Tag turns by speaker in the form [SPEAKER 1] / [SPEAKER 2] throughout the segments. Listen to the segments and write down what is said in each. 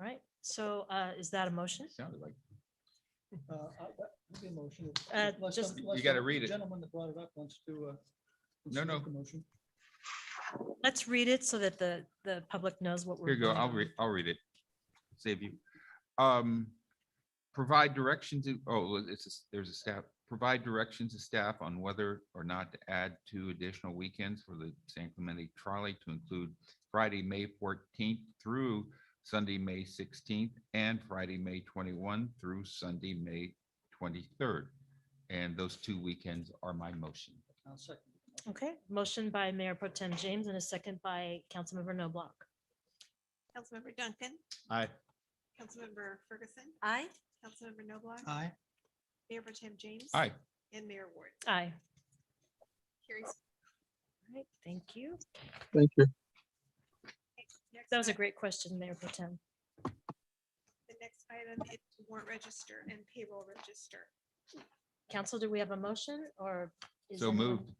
[SPEAKER 1] All right, so uh, is that a motion?
[SPEAKER 2] Sounded like,
[SPEAKER 3] Uh, I- that would be a motion. if-
[SPEAKER 1] Uh,
[SPEAKER 3] unless
[SPEAKER 1] just-
[SPEAKER 3] some-
[SPEAKER 2] You
[SPEAKER 3] unless
[SPEAKER 2] gotta
[SPEAKER 3] some
[SPEAKER 2] read it.
[SPEAKER 3] Gentleman that brought it up wants to. uh, wants
[SPEAKER 2] No,
[SPEAKER 3] to
[SPEAKER 2] no.
[SPEAKER 3] make a Motion.
[SPEAKER 1] Let's read it so that the, the public knows what we're.
[SPEAKER 2] here you go,
[SPEAKER 1] voting
[SPEAKER 2] I'll
[SPEAKER 1] on.
[SPEAKER 2] read, I'll read it. Save you. Um, provide direction to, oh, well, it's, a s- there's a staff, provide direction to staff on whether or not to add two additional weekends for the San Clemente trolley to include Friday, May fourteenth through Sunday, May sixteenth, and Friday, May twenty-one through Sunday, May twenty-third. And those two weekends are my motion.
[SPEAKER 3] I'll second. the motion.
[SPEAKER 1] Okay, motion by Mayor Pro Tem James and a second by Councilmember No Block.
[SPEAKER 4] Councilmember Duncan,
[SPEAKER 2] Aye.
[SPEAKER 4] Councilmember Ferguson,
[SPEAKER 1] Aye.
[SPEAKER 4] Councilmember Noblock,
[SPEAKER 3] Aye.
[SPEAKER 4] Mayor Pro Tem James.
[SPEAKER 2] Aye.
[SPEAKER 4] And Mayor Ward.
[SPEAKER 1] Aye.
[SPEAKER 4] Carries.
[SPEAKER 1] All right, thank you.
[SPEAKER 5] Thank you.
[SPEAKER 4] Next
[SPEAKER 1] That was a
[SPEAKER 4] item-
[SPEAKER 1] great question, Mayor Pro Tem.
[SPEAKER 4] The next item is warrant register and payroll register.
[SPEAKER 1] Council, do we have a motion or? is
[SPEAKER 2] So
[SPEAKER 1] anyone-
[SPEAKER 2] moved.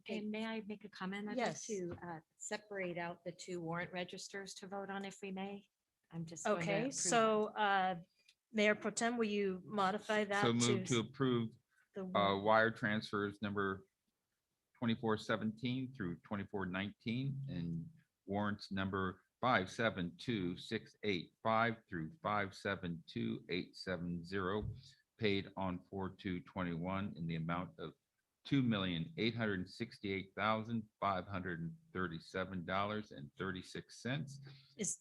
[SPEAKER 1] Okay.
[SPEAKER 6] And may I make a comment? I'd like
[SPEAKER 1] Yes.
[SPEAKER 6] to uh, separate out the two warrant registers to vote on if we may. I'm just. going to
[SPEAKER 1] Okay,
[SPEAKER 6] approve-
[SPEAKER 1] so uh, Mayor Pro Tem, will you modify that?
[SPEAKER 2] So move
[SPEAKER 1] s-
[SPEAKER 2] to approve
[SPEAKER 1] the
[SPEAKER 2] uh,
[SPEAKER 1] warrant?
[SPEAKER 2] wire transfers number twenty-four seventeen through twenty-four nineteen and warrants number five seven two six eight five through five seven two eight seven zero paid on four two twenty-one in the amount of two million eight hundred and sixty-eight thousand five hundred and thirty-seven dollars and thirty-six cents.
[SPEAKER 1] Is,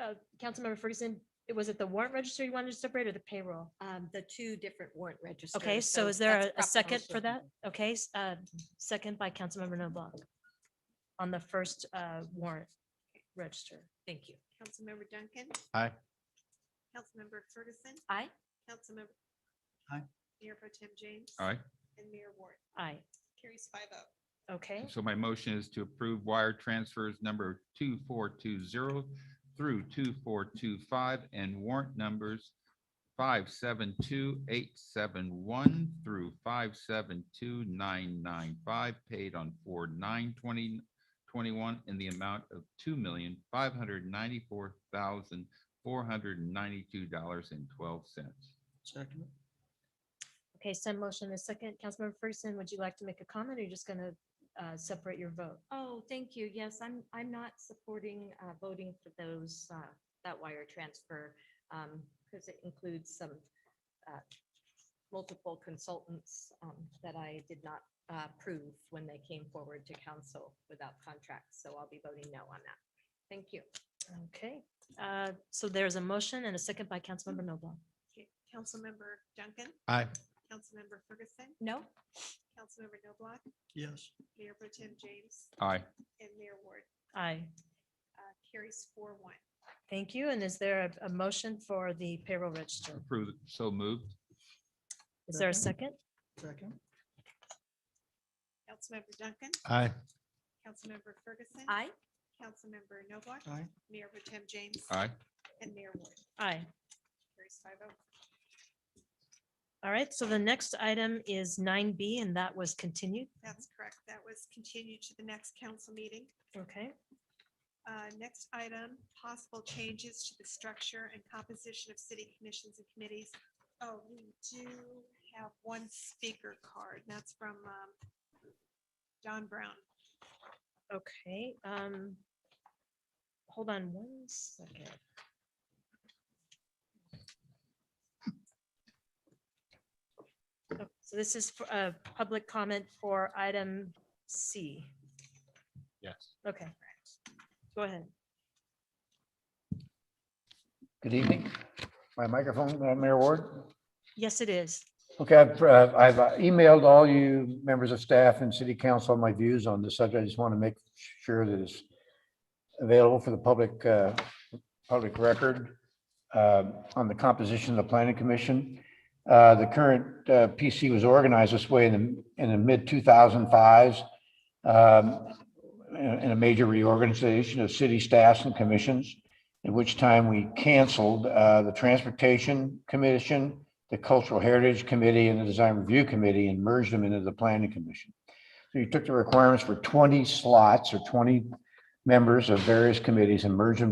[SPEAKER 1] uh, Councilmember Ferguson, it was it the warrant register you wanted to separate or the payroll?
[SPEAKER 6] Um, The two different warrant registers.
[SPEAKER 1] Okay, so is there a- a
[SPEAKER 6] that's
[SPEAKER 1] second for
[SPEAKER 6] proposition.
[SPEAKER 1] that? Okay, s- uh, second by Councilmember Noblock on the first uh, warrant register.
[SPEAKER 6] Thank you.
[SPEAKER 4] Councilmember Duncan.
[SPEAKER 2] Aye.
[SPEAKER 4] Councilmember Ferguson,
[SPEAKER 6] Aye.
[SPEAKER 4] Councilmember.
[SPEAKER 3] Aye.
[SPEAKER 4] Mayor Pro Tem James.
[SPEAKER 2] All right.
[SPEAKER 4] And Mayor Ward.
[SPEAKER 1] Aye,
[SPEAKER 4] Carries five oh.
[SPEAKER 1] okay,
[SPEAKER 2] So my motion is to approve wire transfers number two, four, two, zero through two, four, two, five and warrant numbers five, seven, two, eight, seven, one through five, seven, two, nine, nine, five paid on four, nine, twenty, twenty-one in the amount of two million, five hundred ninety-four thousand, four hundred ninety-two dollars and twelve cents.
[SPEAKER 3] Second.
[SPEAKER 1] okay, send motion in a second. Councilmember Ferguson, would you like to make a comment or you are just gonna uh, separate your vote?
[SPEAKER 6] Oh, thank you. Yes, I'm, I'm not supporting uh, voting for those, uh, that wire transfer because it includes some uh, multiple consultants um, that I did not uh, approve when they came forward to council without contracts. So I'll be voting no on that. Thank you.
[SPEAKER 1] Okay, uh, so there's a motion and a second by Councilmember Noblock.
[SPEAKER 4] Okay, Councilmember Duncan.
[SPEAKER 2] Aye.
[SPEAKER 4] Councilmember Ferguson,
[SPEAKER 6] No?
[SPEAKER 4] Councilmember Noblock,
[SPEAKER 3] Yes.
[SPEAKER 4] Mayor Pro Tem James,
[SPEAKER 2] Aye.
[SPEAKER 4] and Mayor Ward.
[SPEAKER 1] Aye,
[SPEAKER 4] Uh, Carries four one.
[SPEAKER 1] thank you. And is there a- a motion for the payroll register?
[SPEAKER 2] Approve, so moved.
[SPEAKER 1] Is there a
[SPEAKER 3] Second.
[SPEAKER 1] second?
[SPEAKER 3] Second.
[SPEAKER 4] Councilmember Duncan.
[SPEAKER 2] Aye.
[SPEAKER 4] Councilmember Ferguson.
[SPEAKER 6] Aye.
[SPEAKER 4] Councilmember Noblock.
[SPEAKER 3] Aye.
[SPEAKER 4] Mayor Pro Tem James.
[SPEAKER 2] Aye.
[SPEAKER 4] And Mayor Ward.
[SPEAKER 1] Aye.
[SPEAKER 4] Carries five oh.
[SPEAKER 1] All right, so the next item is nine B and that was continued.
[SPEAKER 4] That's correct. That was continued to the next council meeting.
[SPEAKER 1] Okay,
[SPEAKER 4] Uh, Next item, possible changes to the structure and composition of city commissions and committees. Oh, we do have one speaker card. and That's from um, John Brown.
[SPEAKER 1] okay. um, Hold on one second. Oh, So this is for a public comment for item C.
[SPEAKER 2] Yes.
[SPEAKER 1] Okay. Go ahead.
[SPEAKER 7] Good evening. My microphone, uh, Mayor Ward.
[SPEAKER 1] Yes, it is.
[SPEAKER 7] Okay, I've, uh, I've uh, emailed all you members of staff and city council my views on this subject. I just want to make sure that it's available for the public, uh, public record uh, on the composition of the planning commission. Uh, The current uh, PC was organized this way in the, in the mid-2005s um, in a major reorganization of city staffs and commissions at which time we canceled uh, the Transportation Commission, the Cultural Heritage Committee, and the Design Review Committee, and merged them into the Planning Commission. So you took the requirements for 20 slots or 20 members of various committees and merged them